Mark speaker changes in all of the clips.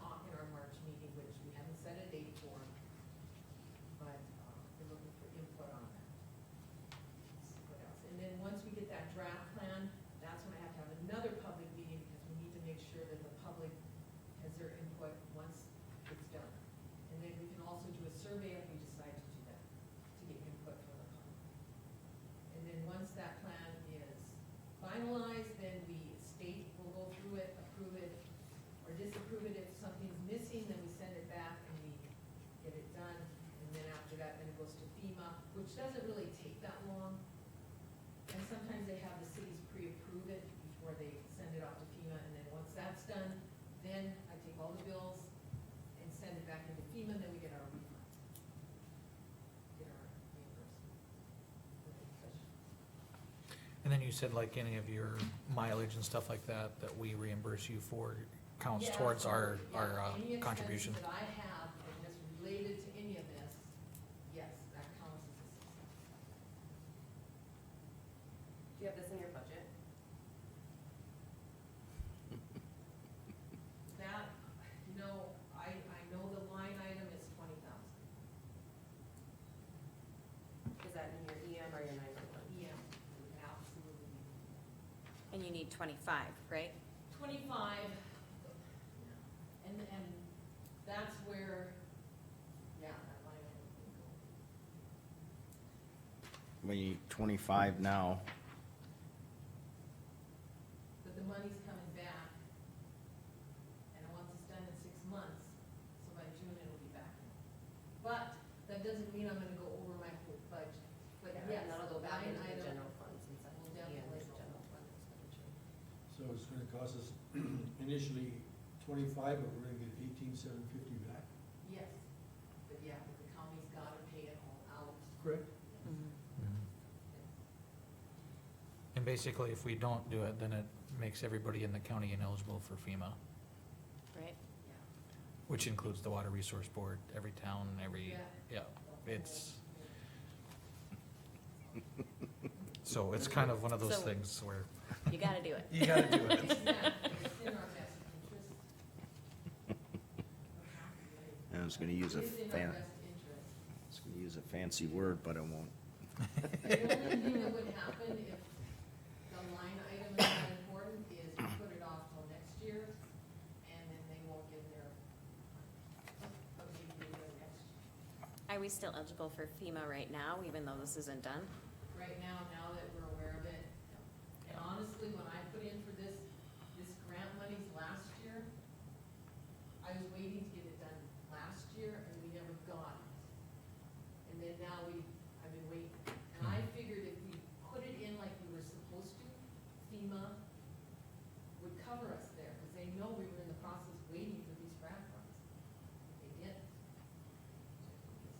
Speaker 1: um,
Speaker 2: you said like any of your mileage and stuff like that, that we reimburse you for counts
Speaker 1: Yeah,
Speaker 2: towards our,
Speaker 1: absolutely.
Speaker 2: our
Speaker 1: Yeah,
Speaker 2: uh,
Speaker 1: any expenses
Speaker 2: contribution.
Speaker 1: That I have, and that's related to any of this, yes, that counts as a success.
Speaker 3: Do you have this in your budget?
Speaker 1: That, no, I, I know the line item is twenty thousand,
Speaker 3: Is that in your EM or your nine-one-one?
Speaker 1: yeah, absolutely.
Speaker 4: And you need twenty-five, right?
Speaker 1: Twenty-five, yeah, and, and that's where, yeah, that line item would go.
Speaker 5: We need twenty-five now,
Speaker 1: But the money's coming back, and I want this done in six months, so by June it'll be back. But that doesn't mean I'm gonna go over my whole budget, but yes,
Speaker 3: And that'll go back
Speaker 1: line
Speaker 3: into the
Speaker 1: item
Speaker 3: general fund since that
Speaker 1: will
Speaker 3: will be in
Speaker 1: definitely
Speaker 3: the
Speaker 1: go.
Speaker 3: E general fund expenditure.
Speaker 6: So it's gonna cost us initially twenty-five, but we're gonna get eighteen seven fifty back,
Speaker 1: Yes, but yeah, but the county's gotta pay it all out.
Speaker 6: correct?
Speaker 5: Mm-hmm.
Speaker 2: Mm-hmm. And basically, if we don't do it, then it makes everybody in the county ineligible for FEMA,
Speaker 4: Right.
Speaker 1: Yeah.
Speaker 2: which includes the Water Resource Board, every town, every,
Speaker 1: Yeah.
Speaker 2: yeah, it's, so it's kind of one of those
Speaker 4: So-
Speaker 2: things where.
Speaker 4: You gotta do it.
Speaker 6: You gotta do it.
Speaker 1: Yeah, It's in our best interest.
Speaker 5: I was gonna use a
Speaker 1: It is in our
Speaker 5: fan,
Speaker 1: best interest.
Speaker 5: I was gonna use a fancy word, but I won't.
Speaker 1: The only thing that would happen if the line item is not important is we put it off till next year, and then they won't give their, uh, but maybe they will next year.
Speaker 4: Are we still eligible for FEMA right now, even though this isn't done?
Speaker 1: Right now, now that we're aware of it, and honestly, when I put in for this, this grant monies last year, I was waiting to get it done last year, and we never got it. And then now we, I've been waiting, and I figured if we put it in like we were supposed to, FEMA would cover us there, because they know we were in the process waiting for these grant funds. They didn't.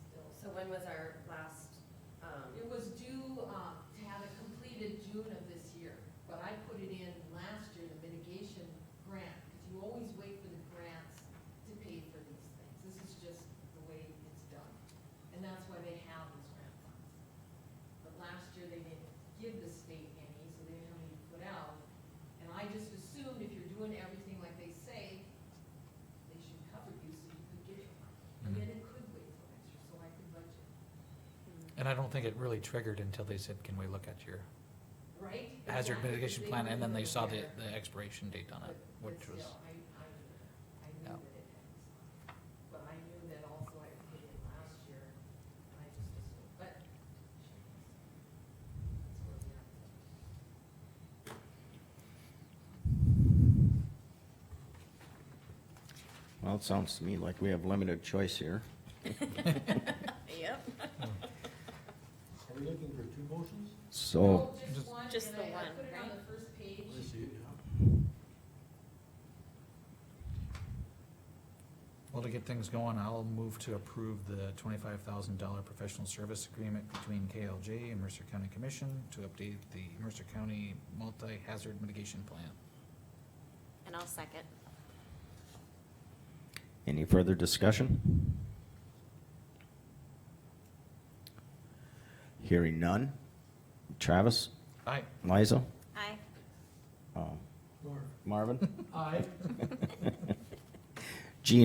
Speaker 1: Still.
Speaker 3: So when was our last, um,
Speaker 1: It was due, uh, to have it completed June of this year, but I put it in last year, the mitigation grant, because you always wait for the grants to pay for these things. This is just the way it's done, and that's why they have these grant funds. But last year, they didn't give the state any, so they didn't have any to put out. And I just assumed if you're doing everything like they say, they should cover you so you could get your money. And then it could wait till next year, so I could budget.
Speaker 2: And I don't think it really triggered until they said, can we look at your
Speaker 1: Right?
Speaker 2: hazard
Speaker 1: Exactly.
Speaker 2: mitigation
Speaker 1: They
Speaker 2: plan, and then
Speaker 1: were
Speaker 2: they saw the,
Speaker 1: aware.
Speaker 2: the expiration date on
Speaker 1: But-
Speaker 2: it,
Speaker 1: but
Speaker 2: which was,
Speaker 1: still, I, I knew that. I knew
Speaker 2: Yeah.
Speaker 1: that it had expired. But I knew that also I paid it last year, and I just assumed, but. That's where we are.
Speaker 5: Well, it sounds to me like we have limited choice here.
Speaker 4: Yep.
Speaker 6: Are we looking for two motions?
Speaker 5: So,
Speaker 1: No, Just
Speaker 2: Just-
Speaker 1: one,
Speaker 4: Just
Speaker 1: and
Speaker 4: the
Speaker 1: I, I
Speaker 4: one,
Speaker 1: put it on
Speaker 4: right?
Speaker 1: the first page.
Speaker 6: I see it now.
Speaker 2: well, to get things going, I'll move to approve the twenty-five thousand dollar professional service agreement between KLJ and Mercer County Commission to update the Mercer County multi-hazard mitigation plan.
Speaker 4: And I'll second.
Speaker 5: any further discussion? Hearing none. Travis,
Speaker 2: Aye.
Speaker 5: Liza,
Speaker 4: Aye.
Speaker 5: um,
Speaker 6: Mark?
Speaker 5: Marvin?
Speaker 6: Aye.